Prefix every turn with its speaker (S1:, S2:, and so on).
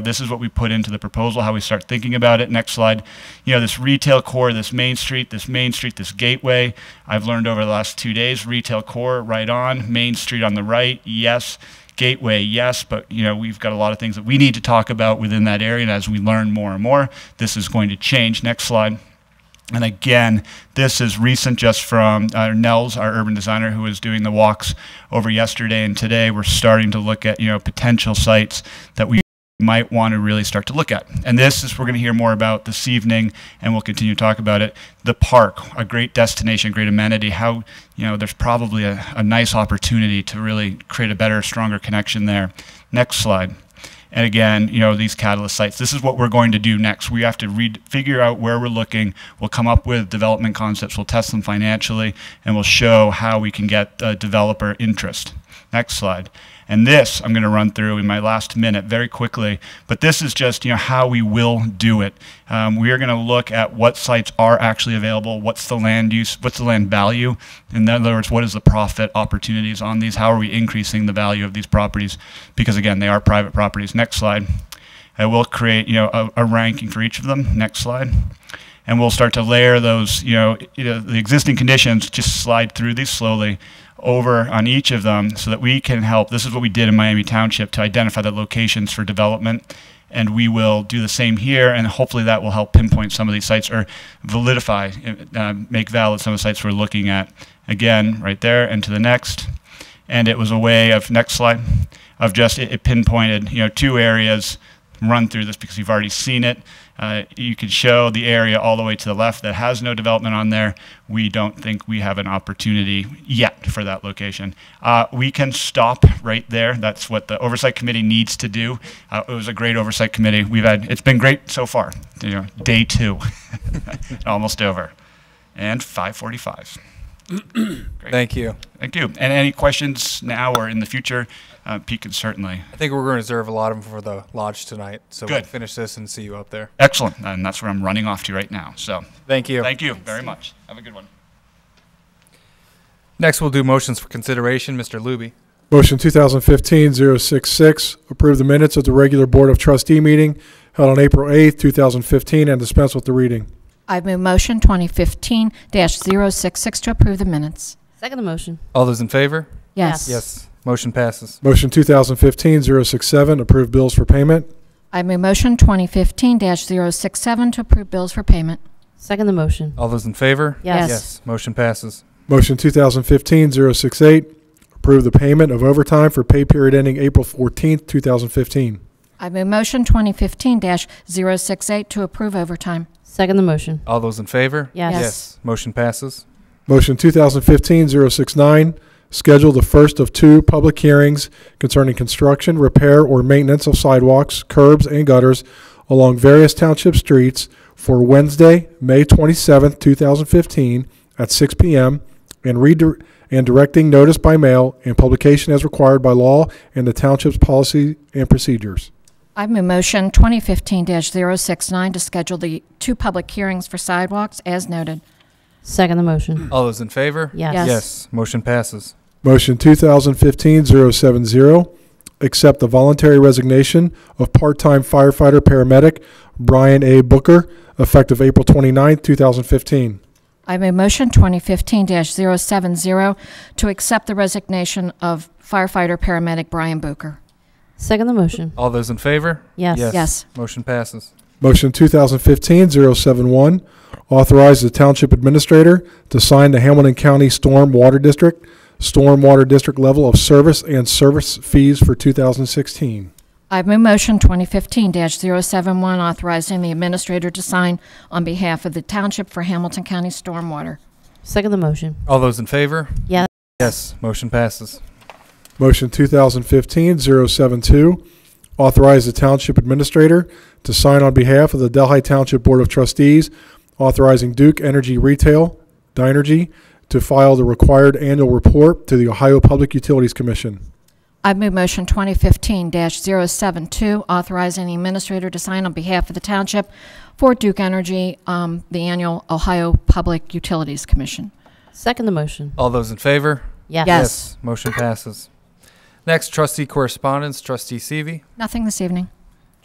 S1: This is what we put into the proposal, how we start thinking about it. Next slide. You know, this retail core, this Main Street, this Main Street, this Gateway. I've learned over the last two days, retail core right on, Main Street on the right, yes. Gateway, yes, but you know, we've got a lot of things that we need to talk about within that area. And as we learn more and more, this is going to change. Next slide. And again, this is recent just from uh, Nels, our urban designer, who was doing the walks over yesterday and today. We're starting to look at, you know, potential sites that we might want to really start to look at. And this is we're going to hear more about this evening, and we'll continue to talk about it. The park, a great destination, great amenity. How you know there's probably a, a nice opportunity to really create a better, stronger connection there. Next slide. And again, you know, these catalyst sites, this is what we're going to do next. We have to read, figure out where we're looking. We'll come up with development concepts, we'll test them financially, and we'll show how we can get uh, developer interest. Next slide. And this I'm going to run through in my last minute very quickly, but this is just you know how we will do it. Um, we are going to look at what sites are actually available, what's the land use, what's the land value. In other words, what is the profit opportunities on these? How are we increasing the value of these properties? Because again, they are private properties. Next slide. I will create you know a, a ranking for each of them. Next slide and we'll start to layer those, you know, you know, the existing conditions, just slide through these slowly over on each of them so that we can help. This is what we did in Miami Township to identify the locations for development. And we will do the same here, and hopefully that will help pinpoint some of these sites or validify, uh, make valid some of the sites we're looking at. Again, right there, and to the next. And it was a way of, next slide, of just, it it pinpointed, you know, two areas run through this because you've already seen it. Uh, you can show the area all the way to the left that has no development on there. We don't think we have an opportunity yet for that location. Uh, we can stop right there. That's what the oversight committee needs to do. Uh, it was a great oversight committee. We've had it's been great so far. You know, day two, almost over, and 5:45.
S2: Thank you.
S1: Thank you. And any questions now or in the future, uh, Pete can certainly.
S2: I think we're going to reserve a lot of them for the lodge tonight. So we'll
S1: Good.
S2: finish this and see you up there.
S1: Excellent. And that's where I'm running off to right now. So
S2: Thank you.
S1: thank you very much. Have a good one.
S2: Next, we'll do motions for consideration. Mr. Luby.
S3: Motion 2015-066, approve the minutes of the regular Board of Trustee meeting held on April 8th, 2015, and dispense with the reading.
S4: I move motion 2015-066 to approve the minutes.
S5: Second the motion.
S2: All those in favor?
S4: Yes.
S5: Yes.
S2: Motion passes.
S3: Motion 2015-067, approve bills for payment.
S4: I move motion 2015-067 to approve bills for payment.
S5: Second the motion.
S2: All those in favor?
S5: Yes.
S2: Motion passes.
S3: Motion 2015-068, approve the payment of overtime for pay period ending April 14th, 2015.
S4: I move motion 2015-068 to approve overtime.
S5: Second the motion.
S2: All those in favor?
S5: Yes.
S4: Yes.
S2: Motion passes.
S3: Motion 2015-069, schedule the first of two public hearings concerning construction, repair, or maintenance of sidewalks, curbs, and gutters along various township streets for Wednesday, May 27th, 2015, at 6 p.m., and redir- and directing notice by mail and publication as required by law and the township's policy and procedures.
S4: I move motion 2015-069 to schedule the two public hearings for sidewalks as noted.
S5: Second the motion.
S2: All those in favor?
S5: Yes.
S4: Yes.
S2: Motion passes.
S3: Motion 2015-070, accept the voluntary resignation of part-time firefighter/paramedic Brian A. Booker, effective April 29, 2015.
S4: I move motion 2015-070 to accept the resignation of firefighter/paramedic Brian Booker.
S5: Second the motion.
S2: All those in favor?
S5: Yes.
S4: Yes.
S2: Motion passes.
S3: Motion 2015-071, authorize the township administrator to sign the Hamilton County Storm Water District, Storm Water District level of service and service fees for 2016.
S4: I move motion 2015-071, authorizing the administrator to sign on behalf of the Township for Hamilton County Stormwater.
S5: Second the motion.
S2: All those in favor?
S5: Yes.
S2: Yes. Motion passes.
S3: Motion 2015-072, authorize the Township Administrator to sign on behalf of the Delhi Township Board of Trustees, authorizing Duke Energy Retail, Dynergy, to file the required annual report to the Ohio Public Utilities Commission.
S4: I move motion 2015-072, authorizing the administrator to sign on behalf of the Township for Duke Energy, um, the annual Ohio Public Utilities Commission.
S5: Second the motion.
S2: All those in favor?
S5: Yes.
S4: Yes.
S2: Motion passes. Next, trustee correspondence, trustee Seavey.
S4: Nothing this evening.